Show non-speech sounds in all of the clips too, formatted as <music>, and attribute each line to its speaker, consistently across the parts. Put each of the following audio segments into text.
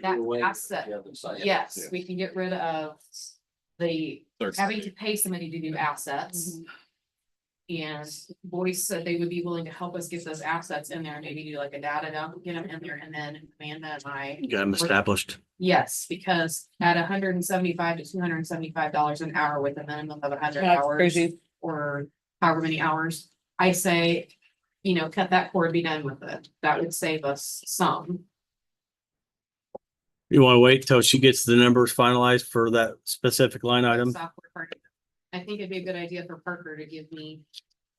Speaker 1: that
Speaker 2: Either way,
Speaker 1: asset,
Speaker 2: the other side.
Speaker 1: Yes,
Speaker 3: Yeah.
Speaker 1: we can get rid of the
Speaker 3: Third
Speaker 1: having to
Speaker 3: stage.
Speaker 1: pay somebody to do
Speaker 4: Mm-hmm.
Speaker 1: assets. And Boyce said they would be willing to help us get those assets in there, maybe do like a data dump, get them in there, and then Amanda and I.
Speaker 5: Got them established.
Speaker 1: Yes, because at hundred and seventy-five to two hundred and seventy-five dollars an hour with a minimum of hundred
Speaker 4: That's
Speaker 1: hours.
Speaker 4: crazy.
Speaker 1: Or however many hours, I say, you know, cut that cord, be done with it. That would save us some.
Speaker 5: You want to wait till she gets the numbers finalized for that specific line item?
Speaker 1: software part. of it. I think it'd be a good idea for Parker to give me,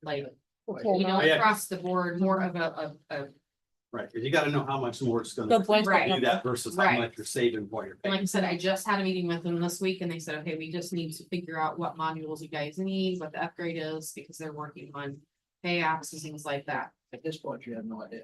Speaker 1: like,
Speaker 4: Full
Speaker 1: you know,
Speaker 4: amount.
Speaker 2: Yeah.
Speaker 1: across the board, more of a, of, of,
Speaker 2: Right, because you gotta know how much more it's
Speaker 4: The
Speaker 2: gonna
Speaker 4: blank
Speaker 1: Right.
Speaker 2: do
Speaker 4: number.
Speaker 2: that versus how
Speaker 1: Right.
Speaker 2: much you're saving while you're
Speaker 1: like I
Speaker 2: paying.
Speaker 1: said, I just had a meeting with them this week and they said, okay, we just need to figure out what modules you guys need, what the upgrade is, because they're working on pay apps and things like that.
Speaker 2: At this point, you have no idea.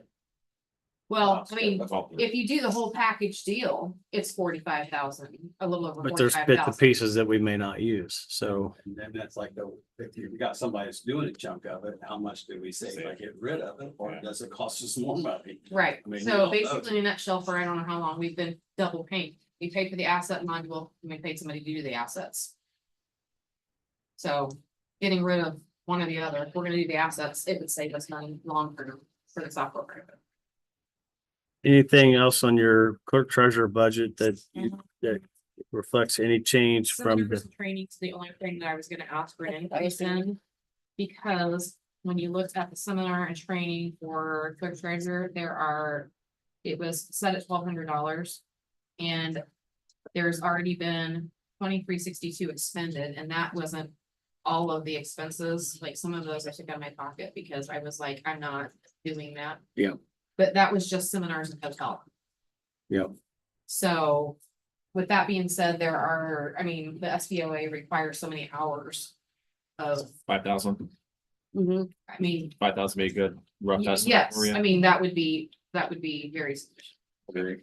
Speaker 1: Well, I mean,
Speaker 3: That's all.
Speaker 1: if you do the whole package deal, it's forty-five thousand, a little over
Speaker 5: But there's
Speaker 1: forty-five
Speaker 5: bits and
Speaker 1: thousand.
Speaker 5: pieces that we may not use, so.
Speaker 2: And then that's like the, if you've got somebody that's doing a chunk of it, how much do we save? Like get rid of it or
Speaker 3: Yeah.
Speaker 2: does it cost us more money?
Speaker 1: Right,
Speaker 2: I mean, you
Speaker 1: so
Speaker 2: know,
Speaker 1: basically in a nutshell, for I don't know how long, we've been double paying. We paid for the asset module, and we paid somebody to do the assets. So getting rid of one or the other, if we're gonna do the assets, it would save us money long term for the software. program.
Speaker 5: Anything else on your clerk treasurer budget that you- that reflects any change
Speaker 1: So there
Speaker 5: from
Speaker 1: was
Speaker 5: the,
Speaker 1: training's the only thing that I was gonna ask for an
Speaker 4: That's what I was
Speaker 1: increase in. Because when you looked at the seminar and training for clerk treasurer, there are, it was set at twelve hundred dollars. And there's already been twenty-three sixty-two expended, and that wasn't all of the expenses, like some of those I took out of my pocket because I was like, I'm not doing that.
Speaker 2: Yeah.
Speaker 1: But that was just seminars and hotel.
Speaker 2: Yeah.
Speaker 1: So with that being said, there are, I mean, the SBOA requires so many hours of,
Speaker 3: Five thousand,
Speaker 4: Mhm.
Speaker 1: I mean,
Speaker 3: five thousand be a good rough estimate.
Speaker 1: yes,
Speaker 3: for you.
Speaker 1: I mean, that would be, that would be very. <laughs>
Speaker 3: Very-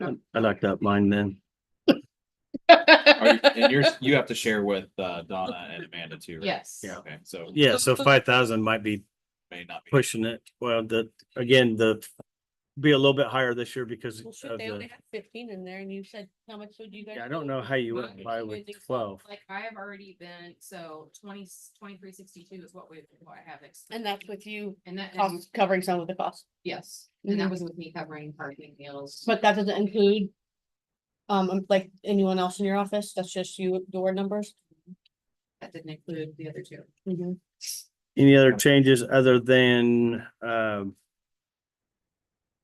Speaker 5: I like that mine then.
Speaker 3: Are you-
Speaker 4: <laughs>
Speaker 3: And you're, you have to share with uh, Donna and Amanda too. right?
Speaker 1: Yes.
Speaker 5: Yeah.
Speaker 3: Okay, so
Speaker 5: Yeah, so five thousand might be
Speaker 3: may not be.
Speaker 5: pushing it. Well, the, again, the be a little bit higher this year because
Speaker 4: Well,
Speaker 5: of
Speaker 4: shoot, they only
Speaker 5: the,
Speaker 4: had fifteen in there and you said, how much would you guys?
Speaker 5: yeah, I don't know how you
Speaker 1: Well,
Speaker 5: went by
Speaker 4: you
Speaker 5: with
Speaker 4: would think so.
Speaker 5: twelve.
Speaker 1: Like I have already been, so twenty, twenty-three sixty-two is what we, what I have. ex-
Speaker 4: And that's with you
Speaker 1: And that, and-
Speaker 4: cost- covering some of the costs,
Speaker 1: yes, and that was with me covering parking meals.
Speaker 4: but that doesn't include. Um, um, like anyone else in your office, that's just you, door numbers.
Speaker 1: That didn't include the other two.
Speaker 4: Mhm.
Speaker 5: Any other changes other than, um,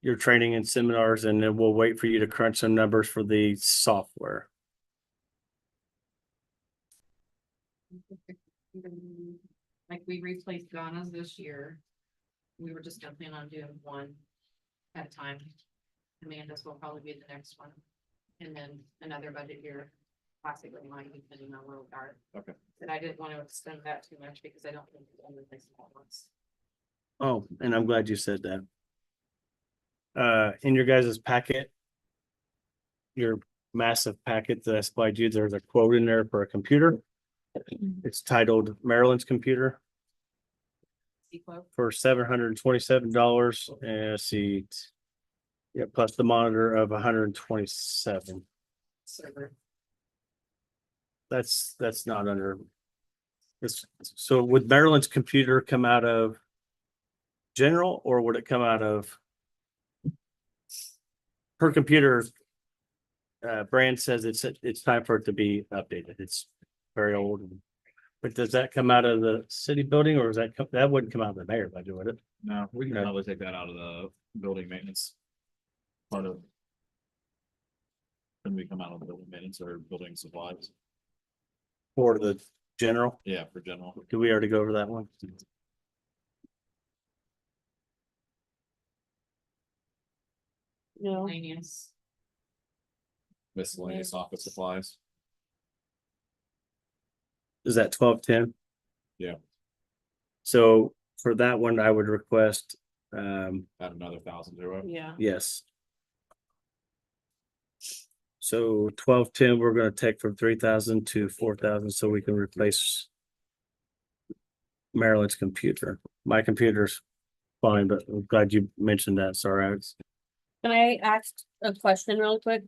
Speaker 5: your training and seminars, and then we'll wait for you to crunch some numbers for the software.
Speaker 1: Like we replaced Donna's this year. We were just gonna plan on doing one at a time. Amanda's will probably be the next one. And then another budget year, possibly mine, depending on where we are.
Speaker 3: Okay.
Speaker 1: And I didn't want to extend that too much because I don't think it's only place all at once.
Speaker 5: Oh, and I'm glad you said that. Uh, in your guys' packet, your massive packet that I supplied you, there's a quote in there for a computer. It's titled Maryland's Computer
Speaker 1: Sequel,
Speaker 5: for seven hundred and twenty-seven dollars and let's see. Yeah, plus the monitor of $127.
Speaker 1: server.
Speaker 5: That's, that's not under. It's, so would Maryland's computer come out of general or would it come out of? Her computer. Uh, brand says it's, it's time for it to be updated. It's very old. But does that come out of the city building or is that, co- that wouldn't come out of the mayor by doing it?
Speaker 3: No, we can
Speaker 5: Okay.
Speaker 3: probably take that out of the building maintenance. Part of. When we come out of the building maintenance or building supplies,
Speaker 5: Or the general?
Speaker 3: yeah, for general.
Speaker 5: Do we already go over that one?
Speaker 4: No,
Speaker 1: Miscellaneous.
Speaker 3: miscellaneous office supplies.
Speaker 5: Is that twelve ten?
Speaker 3: Yeah.
Speaker 5: So for that one, I would request, um,
Speaker 3: Add another thousand to it.
Speaker 4: yeah,
Speaker 5: yes. So twelve ten, we're gonna take from three thousand to four thousand so we can replace Marilyn's computer. My computer's fine, but I'm glad you mentioned that. Sorry, I was
Speaker 4: can I ask a question real quick?